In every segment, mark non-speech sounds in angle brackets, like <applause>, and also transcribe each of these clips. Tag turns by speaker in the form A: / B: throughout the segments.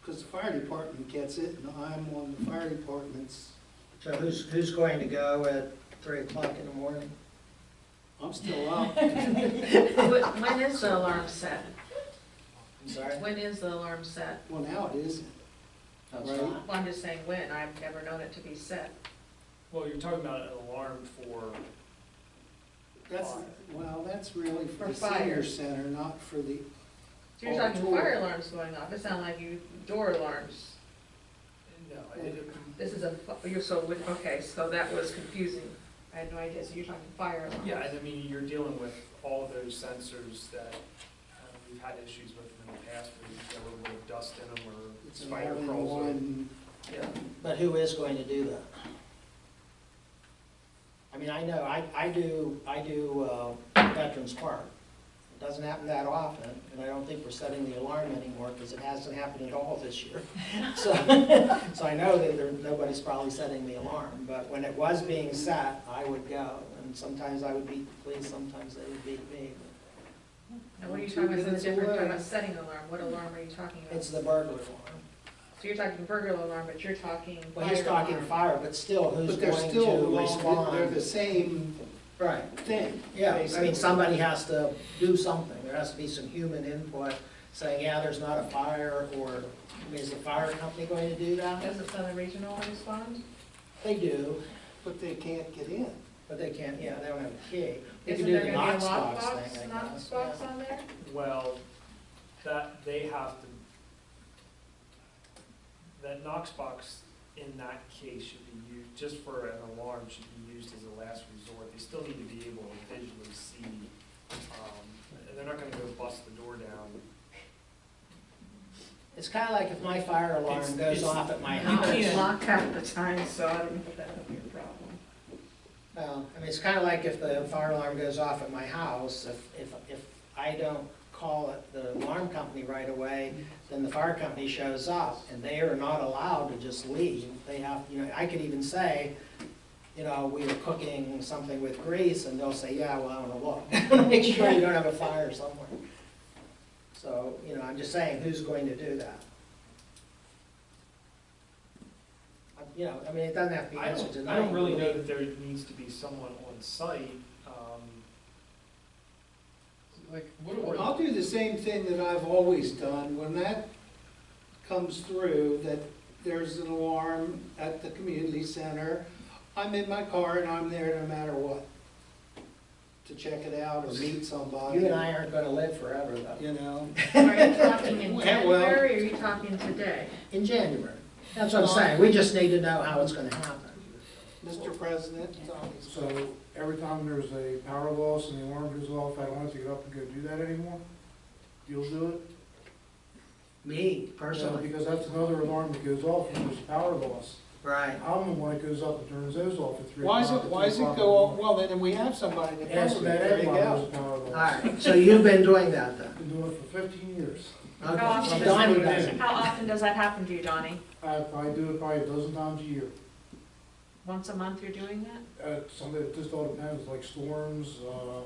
A: because the fire department gets it, and I'm on the fire department's,
B: So who's, who's going to go at three o'clock in the morning?
A: I'm
B: <laughs>
A: still out.
C: Wh- When is the alarm set?
B: I'm sorry?
C: When is the alarm set?
A: Well, now it isn't.
B: That's
A: Right.
B: not-
C: Well, I'm just saying when, I've never known it to be set.
D: Well, you're talking about an alarm for,
A: That's, well, that's really for
C: For
A: the senior
C: fire.
A: center, not for the,
C: So you're
A: Oh,
C: talking
A: door.
C: fire alarms going off, it sounded like you, door alarms.
D: no, I didn't,
C: This is a, fi- you're so, wi- okay, so that was confusing. I had no idea, so you're talking fire alarms.
D: yeah, and I mean, you're dealing with all of those sensors that uh, we've had issues with in the past, where you get a little bit of dust in them or
A: it's an
D: spider crawls. in.
A: all-in-one.
D: Yeah,
B: But who is going to do that? I mean, I know, I, I do, I do uh, Veterans Park. It doesn't happen that often, and I don't think we're setting the alarm anymore, because it hasn't happened at all this year. So, so I know that there, nobody's probably setting the alarm, but when it was being set, I would go, and sometimes I would beat the police, sometimes they would beat me.
C: And what are you
A: Two
C: talking about,
A: minutes
C: something different, You're talking
A: away.
C: about setting alarm, what alarm are you talking about?
B: It's
C: So
B: the burglar alarm.
C: you're talking burglar alarm, but you're talking fire
B: Well, he's talking
C: alarm.
B: fire, but still, who's
A: But they're
B: going
A: still,
B: to
A: all- they're the
B: respond?
A: same
B: Right.
A: thing.
B: Yeah, I
A: basically.
B: mean, somebody has to do something, there has to be some human input, saying, yeah, there's not a fire, or, I mean, is the fire company going to do that?
C: Doesn't Southern Regional respond?
B: They do,
A: But they can't get in.
B: but they can't, yeah, they don't have a key. They can
C: Isn't
B: do
C: there
B: the
C: gonna be a
B: Knox box
C: lockbox,
B: thing, I
C: Knox
B: guess.
C: box
B: yeah.
C: on there?
D: well, that, they have to, that Knox box in that case should be used, just for an alarm, should be used as a last resort. They still need to be able to visually see, um, and they're not gonna go bust the door down
B: It's kind of like if my fire
D: It's-
B: alarm goes
D: it's-
B: off at my
D: you
C: No,
B: house.
C: it's
D: can't-
C: locked half the time, so I don't know if that would be a problem.
B: Well, Um, I mean, it's kind of like if the fire alarm goes off at my house, if, if, if I don't call it the alarm company right away, then the fire company shows up, and they are not allowed to just leave. They have, you know, I could even say, you know, we were cooking something with grease, and they'll say, yeah, well, I want to look. <laughs> Make sure you don't have a fire somewhere. So, you know, I'm just saying, who's going to do that? Uh, You know, I mean, it doesn't have to be
D: I
B: answered
D: don't,
B: tonight.
D: I don't really know that there needs to be someone on site, um, like, what do I?
A: I'll do the same thing that I've always done, when that comes through, that there's an alarm at the community center, I'm in my car and I'm there no matter what, to check it out or meet somebody,
B: You and I aren't gonna live forever, though.
A: you know?
C: Are you talking
E: <laughs>
C: in
A: Yeah, well-
C: January, or are you talking today?
B: In January. That's what I'm saying, we just need to know how it's gonna happen.
A: Mr. President,
E: So every time there's a power loss and the alarm goes off, I don't have to get up and go do that anymore? You'll do it?
B: Me,
E: No,
B: personally.
E: Because that's another alarm that goes off when there's a power loss.
B: Right.
E: I'm the one that goes up and turns those off at three
A: why is
E: o'clock.
A: it,
E: or
A: why is
E: four
A: it
E: o'clock
A: go,
E: in
A: off?
E: the morning.
A: well, then we have somebody to
E: Ask
A: cover it,
E: that
A: there you
E: everyone
A: go.
E: there's a power loss.
B: Alright, so you've been doing that, then?
E: Been doing it for fifteen years.
B: Okay.
C: How often
B: Well,
C: does-
B: Donnie does it.
C: How often does that happen to you, Donnie?
E: I probably do it probably a dozen times a year.
C: Once a month you're doing that?
E: Uh, something, it just all depends, like storms, uh,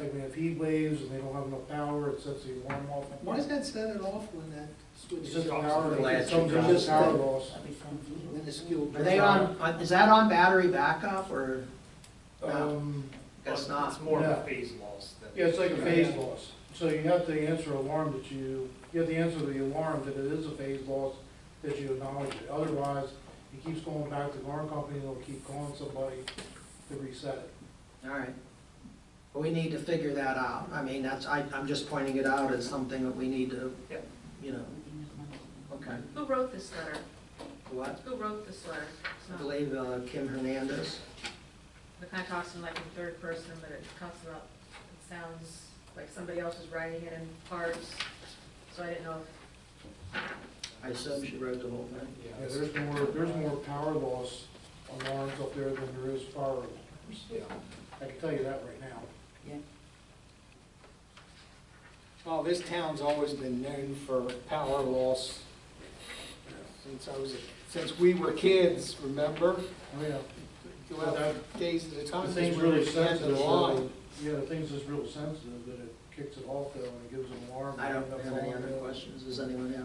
E: like we have heat waves and they don't have enough power, it sets the alarm off.
A: Why does that set it off when that
E: It's
A: switch
E: just
A: is
E: a
A: off?
E: power,
B: Last
E: it's some
B: job.
E: just power loss.
A: Minuscule.
B: Are they on, uh, is that on battery backup, or,
E: Um,
B: That's
D: Well, It's
B: not-
D: more of
E: no.
D: a phase loss than.
E: yeah, it's like a phase loss. So you have to answer alarm that you, you have to answer the alarm that it is a phase loss, that you acknowledge it. Otherwise, it keeps going back to the alarm company, they'll keep calling somebody to reset it.
B: alright. Well, we need to figure that out. I mean, that's, I, I'm just pointing it out as something that we need to,
D: Yeah.
B: you know. Okay,
C: Who wrote this letter?
B: what?
C: Who wrote this letter? It's
B: I
C: not-
B: believe uh, Kim Hernandez.
C: It kind of talks in like in third person, but it talks about, it sounds like somebody else is writing it in parts, so I didn't know if.
B: I assume she wrote the whole thing.
D: Yeah,
E: Yeah, there's more, there's more power loss alarms up there than there is fire alarms.
D: yeah.
E: I can tell you that right now.
A: Oh, this town's always been known for power loss since I was, since we were kids, remember?
E: Oh, yeah.
A: Go out Days at a time.
E: The
A: just
E: thing's
A: where
E: really
A: we had the
E: sensitive,
A: line.
E: so, yeah, the thing's just real sensitive, that it kicks it off though, and it gives an alarm.
B: I don't
E: and it
B: have any
E: goes
B: other
E: on.
B: questions. Does anyone have